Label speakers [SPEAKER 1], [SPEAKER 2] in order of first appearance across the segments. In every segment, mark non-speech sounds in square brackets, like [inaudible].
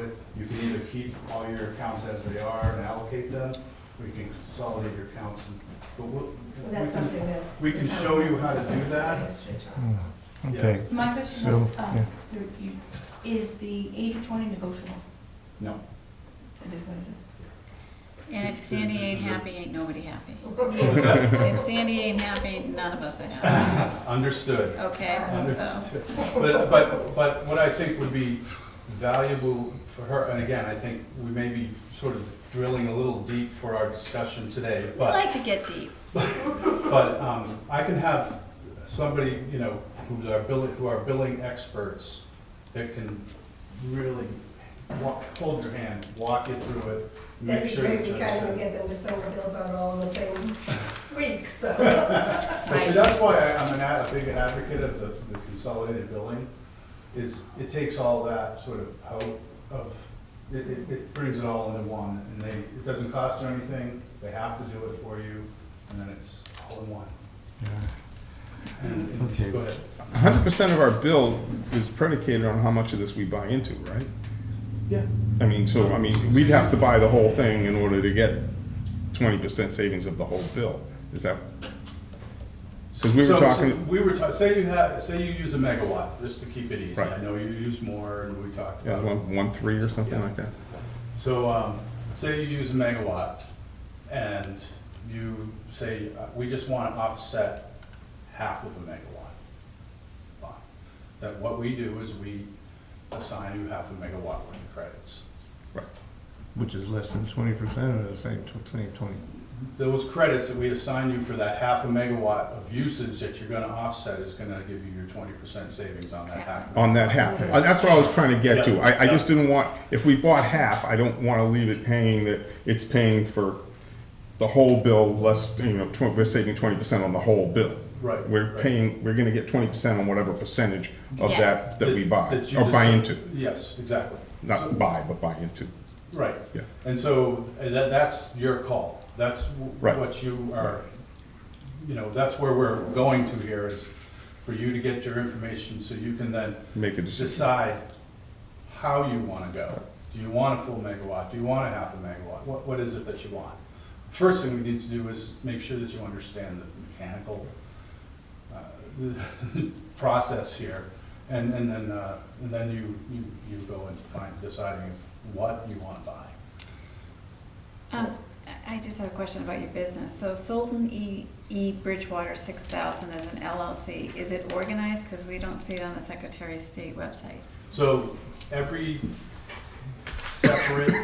[SPEAKER 1] it, you can either keep all your accounts as they are and allocate them, or you can consolidate your accounts and, but we'll. we
[SPEAKER 2] That's
[SPEAKER 1] can-
[SPEAKER 2] something that.
[SPEAKER 1] We can show you how to do that.
[SPEAKER 3] Hmm, Okay,
[SPEAKER 4] My question
[SPEAKER 3] so,
[SPEAKER 4] was, um,
[SPEAKER 3] yeah.
[SPEAKER 4] through you, is the eighty to twenty negotiable?
[SPEAKER 1] No.
[SPEAKER 4] It is what it
[SPEAKER 5] And if Sandy ain't happy, ain't nobody happy.
[SPEAKER 1] What's that? [laughs]
[SPEAKER 5] If Sandy ain't happy, none of us are happy.
[SPEAKER 1] Understood.
[SPEAKER 5] Okay, so,
[SPEAKER 1] Understood. But, but, but what I think would be valuable for her, and again, I think we may be sort of drilling a little deep for our discussion today,
[SPEAKER 5] I
[SPEAKER 1] but,
[SPEAKER 5] like to get deep.
[SPEAKER 1] but, um, I can have somebody, you know, who's our billing, who are billing experts that can really walk, hold your hand, walk you through it,
[SPEAKER 2] That'd
[SPEAKER 1] make
[SPEAKER 2] be
[SPEAKER 1] sure.
[SPEAKER 2] great,
[SPEAKER 1] that you
[SPEAKER 2] we kind of
[SPEAKER 1] understand.
[SPEAKER 2] get them to send the bills out all in the same week, so.
[SPEAKER 1] But see,
[SPEAKER 5] Right.
[SPEAKER 1] that's why I- I'm an, ad- a big advocate of the, the consolidated billing, is it takes all that sort of out of, it, it, it brings it all into one, and they, it doesn't cost them anything, they have to do it for you, and then it's all in one.
[SPEAKER 3] yeah.
[SPEAKER 1] And- and-
[SPEAKER 3] Okay.
[SPEAKER 1] Go ahead.
[SPEAKER 6] hundred percent of our bill is predicated on how much of this we buy into, right?
[SPEAKER 1] Yeah.
[SPEAKER 6] I mean, so, I mean, we'd have to buy the whole thing in order to get twenty percent savings of the whole bill, is that? Because we were
[SPEAKER 1] So- so
[SPEAKER 6] talking,
[SPEAKER 1] We were ta- say you have, say you use a megawatt, just to keep it easy,
[SPEAKER 6] Right.
[SPEAKER 1] I know you use more, and we talked
[SPEAKER 6] yeah,
[SPEAKER 1] about it.
[SPEAKER 6] one, one three or something
[SPEAKER 1] Yeah.
[SPEAKER 6] like that,
[SPEAKER 1] So, um, say you use a megawatt, and you say, uh, we just wanna offset half of a megawatt. Fine. That what we do is we assign you half a megawatt worth of credits.
[SPEAKER 3] Which is less than twenty percent of the same, same twenty.
[SPEAKER 1] Those credits that we assign you for that half a megawatt of usage that you're gonna offset is gonna give you your twenty percent savings on that half.
[SPEAKER 6] on that half. Uh, That's what I was trying to get to, I, I just didn't want, if we bought half, I don't wanna leave it paying that, it's paying for the whole bill, less, you know, tw- we're saving twenty percent on the whole bill.
[SPEAKER 1] Right.
[SPEAKER 6] We're
[SPEAKER 1] right.
[SPEAKER 6] paying, we're gonna get twenty percent on whatever percentage of
[SPEAKER 5] Yes.
[SPEAKER 6] that, that we buy,
[SPEAKER 1] That you
[SPEAKER 6] or buy
[SPEAKER 1] decide-
[SPEAKER 6] into,
[SPEAKER 1] Yes, exactly. So-
[SPEAKER 6] not buy, but buy into.
[SPEAKER 1] Right.
[SPEAKER 6] Yeah.
[SPEAKER 1] And so uh, that, that's your call. That's w-
[SPEAKER 6] Right.
[SPEAKER 1] what you are, you know, that's where we're going to here is for you to get your information so you can then
[SPEAKER 6] Make a decision.
[SPEAKER 1] decide how you want to go. Do you want a full megawatt? Do you want a half a megawatt? What, what is it that you want? First thing we need to do is make sure that you understand the mechanical uh, [laughs] process here. And, and then, uh, and then you, you, you go into find, deciding if- what you want to buy.
[SPEAKER 5] Um, I I just have a question about your business. So Solton E, E Bridgewater six thousand is an LLC. Is it organized? Because we don't see it on the Secretary of State website.
[SPEAKER 1] So every separate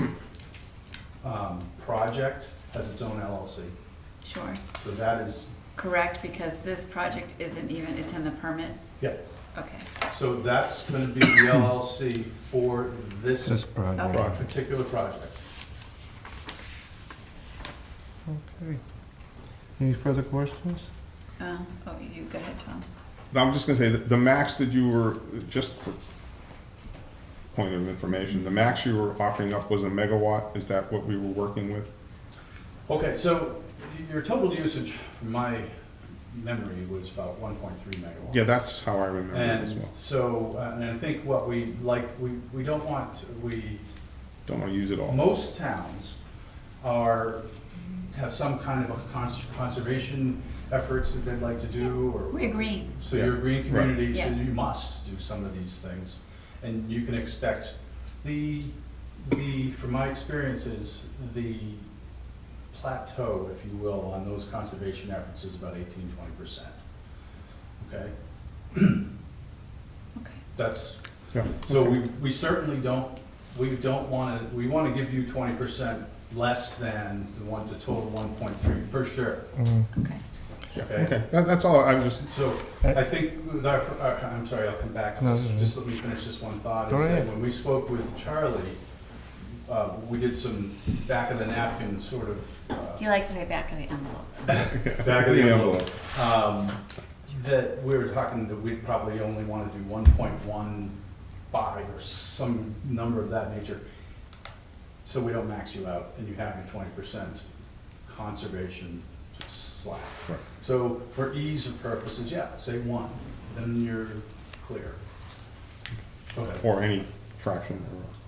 [SPEAKER 1] um, project has its own LLC.
[SPEAKER 5] Sure.
[SPEAKER 1] So that is,
[SPEAKER 5] Correct, because this project isn't even, it's in the permit?
[SPEAKER 1] yeah,
[SPEAKER 5] Okay,
[SPEAKER 1] So that's gonna be the LLC for
[SPEAKER 3] This
[SPEAKER 1] this
[SPEAKER 3] project.
[SPEAKER 5] Okay.
[SPEAKER 1] particular project.
[SPEAKER 3] Okay. Any further questions?
[SPEAKER 5] um, oh, you, go ahead, Tom.
[SPEAKER 6] I'm just gonna say, that the max that you were, just for point of information, the max you were offering up was a megawatt, is that what we were working with?
[SPEAKER 1] Okay, so your total usage, from my memory, was about one point three megawatts.
[SPEAKER 6] Yeah, that's how I remember it as
[SPEAKER 1] And
[SPEAKER 6] well.
[SPEAKER 1] so, uh, and I think what we like, we, we don't want, to- we,
[SPEAKER 6] Don't wanna use it all.
[SPEAKER 1] most towns are, have some kind of a cons- conservation efforts that they'd like to do, or
[SPEAKER 5] We agree.
[SPEAKER 1] So you're a green community, so
[SPEAKER 5] Yes.
[SPEAKER 1] you must do some of these things, and you can expect, the, the, from my experiences, the plateau, if you will, on those conservation efforts is about eighteen, twenty percent. Okay,
[SPEAKER 5] Okay.
[SPEAKER 1] that's,
[SPEAKER 6] Yeah.
[SPEAKER 1] so we, we certainly don't, we don't wanna, we wanna give you twenty percent less than the one, the total one point three, for sure,
[SPEAKER 3] Mm,
[SPEAKER 5] Okay.
[SPEAKER 6] Yeah,
[SPEAKER 1] okay?
[SPEAKER 6] okay, that, that's all, I was just,
[SPEAKER 1] So, I think, with our- our- I'm sorry, I'll come back,
[SPEAKER 3] Uh, No, this is-
[SPEAKER 1] just let me finish this one thought.
[SPEAKER 3] Go
[SPEAKER 1] and say,
[SPEAKER 3] ahead.
[SPEAKER 1] When we spoke with Charlie, uh, we did some back of the napkin sort of, uh,
[SPEAKER 5] He likes to say back of the envelope.
[SPEAKER 1] back of the
[SPEAKER 6] Yeah.
[SPEAKER 1] envelope. um, That we were talking that we'd probably only want to do one point one five or some number of that nature. So we don't max you out and you have your twenty percent conservation slack.
[SPEAKER 6] Right.
[SPEAKER 1] So for ease of purposes, yeah, say one, then you're clear. Go ahead.
[SPEAKER 6] or any fraction thereof.